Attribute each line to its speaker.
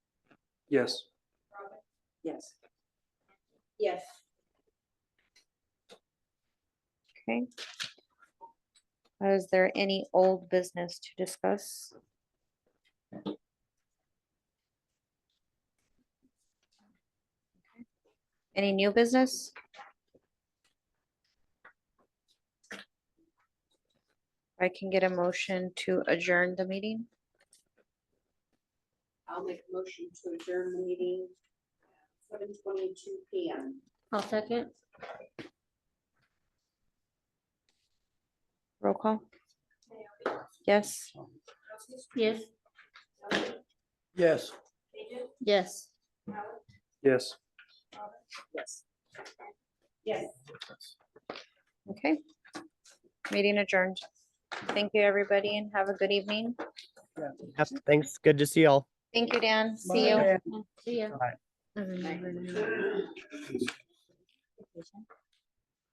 Speaker 1: Yes.
Speaker 2: Yes.
Speaker 3: Yes.
Speaker 4: Okay. Is there any old business to discuss? Any new business? I can get a motion to adjourn the meeting.
Speaker 3: I'll make a motion to adjourn the meeting seven twenty-two P M.
Speaker 2: I'll second.
Speaker 4: Roll call. Yes.
Speaker 2: Yes.
Speaker 1: Yes.
Speaker 2: Yes.
Speaker 1: Yes.
Speaker 3: Yes. Yes.
Speaker 4: Okay. Meeting adjourned. Thank you, everybody, and have a good evening.
Speaker 5: Yep, thanks. Good to see y'all.
Speaker 4: Thank you, Dan. See you.
Speaker 2: See ya.
Speaker 4: Mhm.